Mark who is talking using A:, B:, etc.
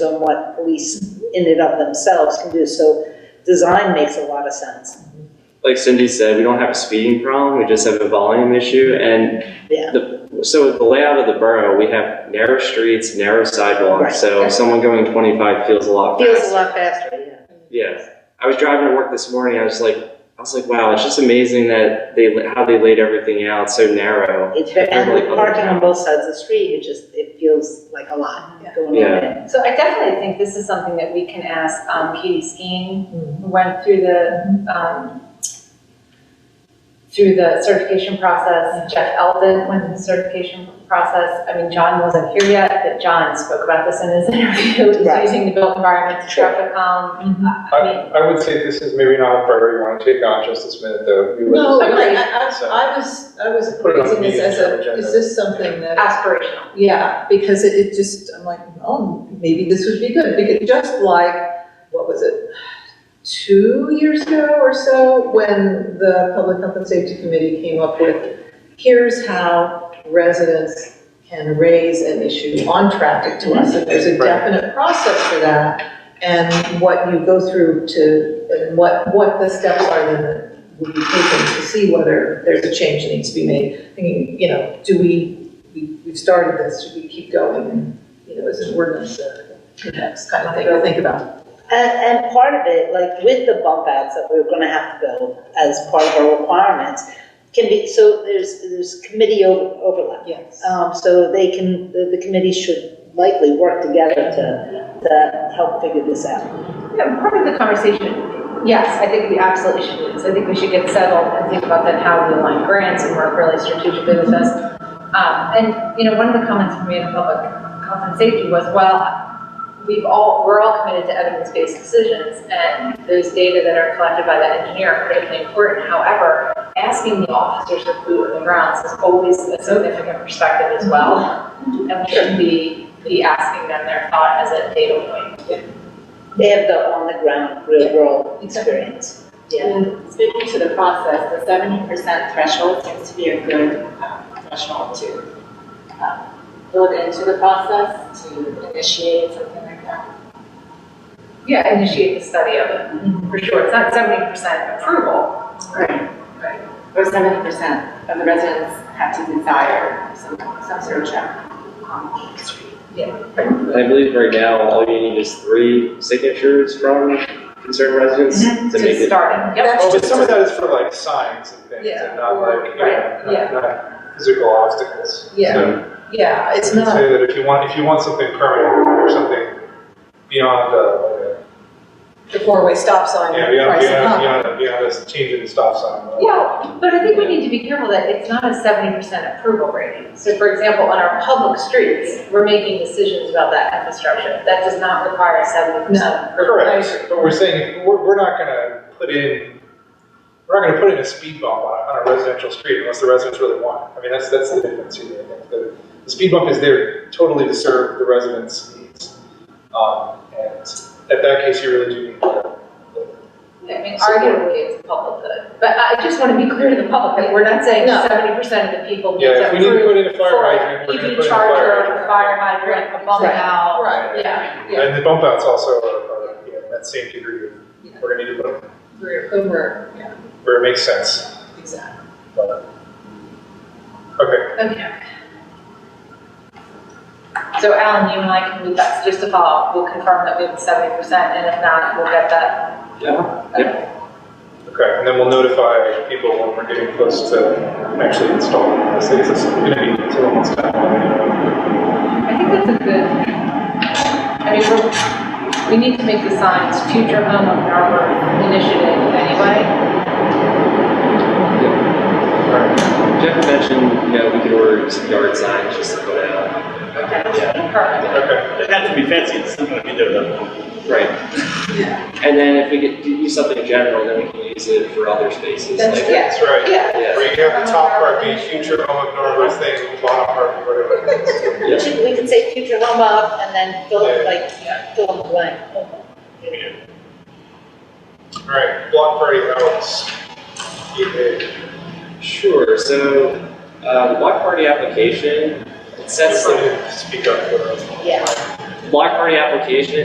A: on what police in and of themselves can do, so design makes a lot of sense,
B: Like Cindy said, we don't have a speeding problem, we just have a volume issue. And
A: yeah.
B: the, so with the layout of the borough, we have narrow streets, narrow
A: Right.
B: sidewalks, so someone going 25 feels a lot
A: Feels a
B: faster.
A: lot faster,
B: Yeah. I was driving to work this morning, I was like, I was like, wow, it's just amazing that they, how they laid everything out so narrow.
A: yeah. It's, ve- and
B: Definitely
A: with
B: other
A: parking on
B: towns.
A: both sides of the street, it just, it feels like a lot
C: Yeah.
A: going on
B: Yeah.
A: there.
C: So I definitely think this is something that we can ask um, Katie Skeen, who went through the, um, through the certification process. Jeff Eldon went through the certification process. I mean, John wasn't here yet, but John spoke about this in his interview,
A: Right.
C: he's using the built environment to traffic calm.
D: Mm-hmm.
C: I mean,
D: I, I would say this is maybe not where you want to take on just this minute, though. You would-
E: No, I,
C: Agreed.
E: I,
D: So-
E: I- I was, I was
D: Put it on
E: raising this
D: the
E: as a,
D: agenda.
E: is this something that,
C: aspirational.
E: yeah, because it, it just, I'm like, oh, maybe this would be good, because just like, what was it? Two years ago or so, when the Public Health and Safety Committee came up with, here's how residents can raise an issue on traffic to us, and there's a
D: Right.
E: definite process for that, and what you go through to, and what, what the steps are then that would be taken to see whether there's a change that needs to be made. I mean, you know, do we, we, we've started this, should we keep going, and, you know, is an ordinance, uh, next kind of thing to think about.
A: And, and part of it, like with the bump outs that we're gonna have to build as part of our requirements, can be, so there's, there's committee over- overlap.
E: Yes.
A: Um, so they can, the, the committee should likely work together to, to help figure this out.
C: Yeah, part of the conversation, yes, I think we absolutely should do this. I think we should get settled and think about then how we align grants and work really strategically with this. Um, and, you know, one of the comments from me in public health and safety was, well, we've all, we're all committed to evidence-based decisions, and those data that are collected by that engineer are critically important. However, asking the officers to boot on the grounds is always a significant perspective as well. And we should be, be asking them their thought as a data point.
A: They have the on-the-ground, real-world experience. Yeah.
F: And speaking to the process, the seventy percent threshold seems to be a good um, threshold to um, build into the process, to initiate something like that.
C: Yeah, initiate the study of it, for sure. It's not seventy percent approval.
F: Mm-hmm. Right. Or seventy percent of the residents have to desire some, some sort of traffic. calming street.
B: I believe right now, all you need is three signatures from concerned residents
A: Mm-hmm.
B: to make
C: To
B: it.
C: start it, yep.
D: Well, Oh, but some of that is for like signs and things,
E: Yeah,
D: and not like, you
C: right,
D: know,
C: yeah.
D: not, not physical obstacles.
E: Yeah.
D: So
E: Yeah, it's
D: I'd
E: not,
D: say that if you want, if you want something permanent or something beyond the,
E: the four-way stop sign,
D: yeah, beyond,
E: price it
D: beyond,
E: up.
D: beyond, beyond this change in the stop sign. uh,
C: Yeah, but I think we need to be careful that it's not a seventy percent approval rating. So for example, on our public streets, we're making decisions about that infrastructure. That does not require seventy percent approval.
D: Correct, but we're saying, we're, we're not gonna put in, we're not gonna put in a speed bump on, a- on a residential street unless the residents really want it. I mean, that's, that's the difference here, I think. The, the speed bump is there totally to serve the residents' needs. Um, and at that case, you really do need the,
C: I mean, arguably, it's a public good. But I just want to be clear to the public that we're not saying
E: No.
C: seventy percent of the people need
D: yeah,
C: to
D: if we need to
C: approve
D: put in
C: for EV
D: a fire hydrant, we're gonna put in a fire
C: charger, a
D: hydrant.
C: fire hydrant, a bump
E: Right.
C: out.
E: Right,
C: Yeah,
E: yeah.
D: And the bump outs also are, are, you know, that same degree, of-
E: Yeah.
D: we're gonna need to put them
E: We're, we're, yeah,
D: where it makes sense,
E: exactly.
D: but. Okay,
C: okay. So Alan, you and I can move that, just to follow up, we'll confirm that we have seventy percent, and if not, we'll get that.
B: Yeah, yeah.
D: okay, and then we'll notify people when we're getting close to actually installing this, because it's gonna be two months down.
C: I think that's a good, I mean, we're, we need to make the signs future home of our initiative anyway.
B: Jeff mentioned, you know, we could order some yard signs just to put out. Yeah,
C: Perfect.
D: Okay,
G: It has to be fancy, it's not gonna be there that long.
B: right. And then if we could do something general, then we can use it for other spaces,
C: That's-
B: like.
C: yeah.
D: that's right.
C: Yeah.
B: Yeah,
D: Where you have the top part being future home of Norwood's thing, bottom part, whatever.
A: We should- we could say future home of, and then fill, it like, fill in the blank.
D: All right, block party hours. Okay.
B: sure, so, uh, the block party application, it sets the
D: Speak up.
A: Yeah.
B: block party application